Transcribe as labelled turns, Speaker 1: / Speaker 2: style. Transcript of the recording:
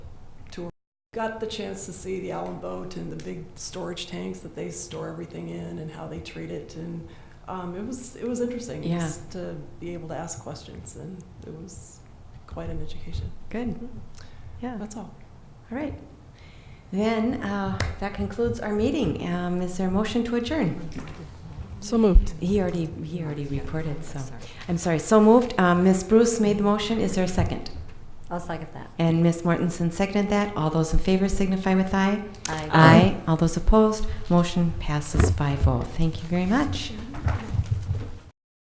Speaker 1: Got the chance to see the Allen boat and the big storage tanks that they store everything in and how they treat it, and um, it was it was interesting
Speaker 2: Yeah.
Speaker 1: just to be able to ask questions, and it was quite an education.
Speaker 2: Good.
Speaker 1: Mm-hmm.
Speaker 2: Yeah.
Speaker 1: That's all.
Speaker 2: All right. Then uh, that concludes our meeting. Um, is there a motion to adjourn?
Speaker 1: So moved.
Speaker 2: He already he already reported. So I'm sorry. So moved. Um, Ms. Bruce made the motion. Is there a second?
Speaker 3: I'll second that.
Speaker 2: And Ms. Mortensen seconded that. All those in favor signify with aye.
Speaker 3: Aye.
Speaker 2: All those opposed. Motion passes 5-0. Thank you very much.